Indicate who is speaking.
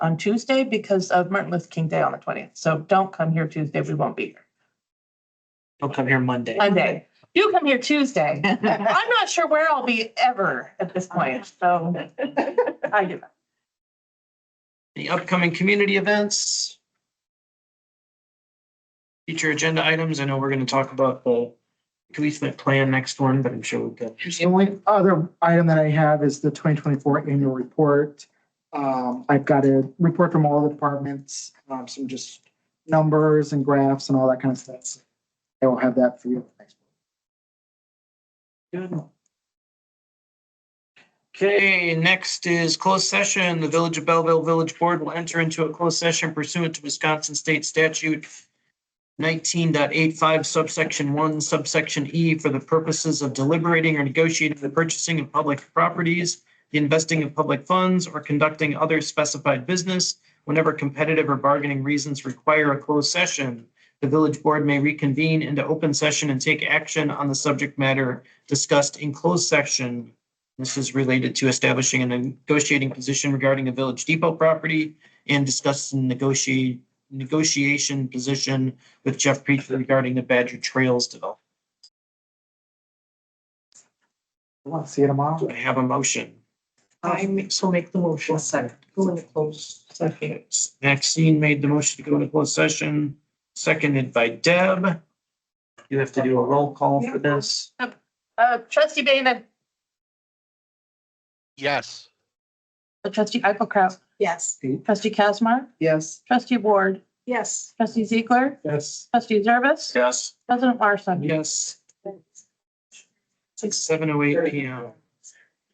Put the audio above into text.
Speaker 1: on Tuesday because of Martin Luther King Day on the twentieth. So don't come here Tuesday. We won't be here.
Speaker 2: Don't come here Monday.
Speaker 1: Monday. You come here Tuesday. I'm not sure where I'll be ever at this point, so. I do.
Speaker 2: The upcoming community events. Future agenda items. I know we're gonna talk about the policeman plan next one, but I'm sure we've got.
Speaker 3: The only other item that I have is the twenty twenty-four annual report. Um, I've got a report from all the departments, um, some just numbers and graphs and all that kind of stuff. I will have that for you.
Speaker 2: Okay, next is closed session. The Village of Belleville Village Board will enter into a closed session pursuant to Wisconsin State Statute 19.85 subsection one subsection E for the purposes of deliberating or negotiating the purchasing of public properties, the investing of public funds, or conducting other specified business whenever competitive or bargaining reasons require a closed session. The village board may reconvene into open session and take action on the subject matter discussed in closed session this is related to establishing a negotiating position regarding a Village Depot property and discussing negotiate, negotiation position with Jeff Preach regarding the Badger Trails development.
Speaker 3: Well, See you tomorrow.
Speaker 2: Do I have a motion?
Speaker 4: I ma- so make the motion, second, go in the close. Second.
Speaker 2: Maxine made the motion to go into closed session, seconded by Deb. You have to do a roll call for this.
Speaker 1: Uh, trustee Dana,
Speaker 5: Yes.
Speaker 1: uh, trustee Eichelkraut,
Speaker 4: Yes.
Speaker 1: trustee Casmar,
Speaker 3: Yes.
Speaker 1: trustee Ward,
Speaker 4: Yes.
Speaker 1: trustee Ziegler,
Speaker 2: Yes.
Speaker 1: trustee Zervis,
Speaker 2: Yes.
Speaker 1: president Larson.
Speaker 2: Yes. It's seven oh eight P M.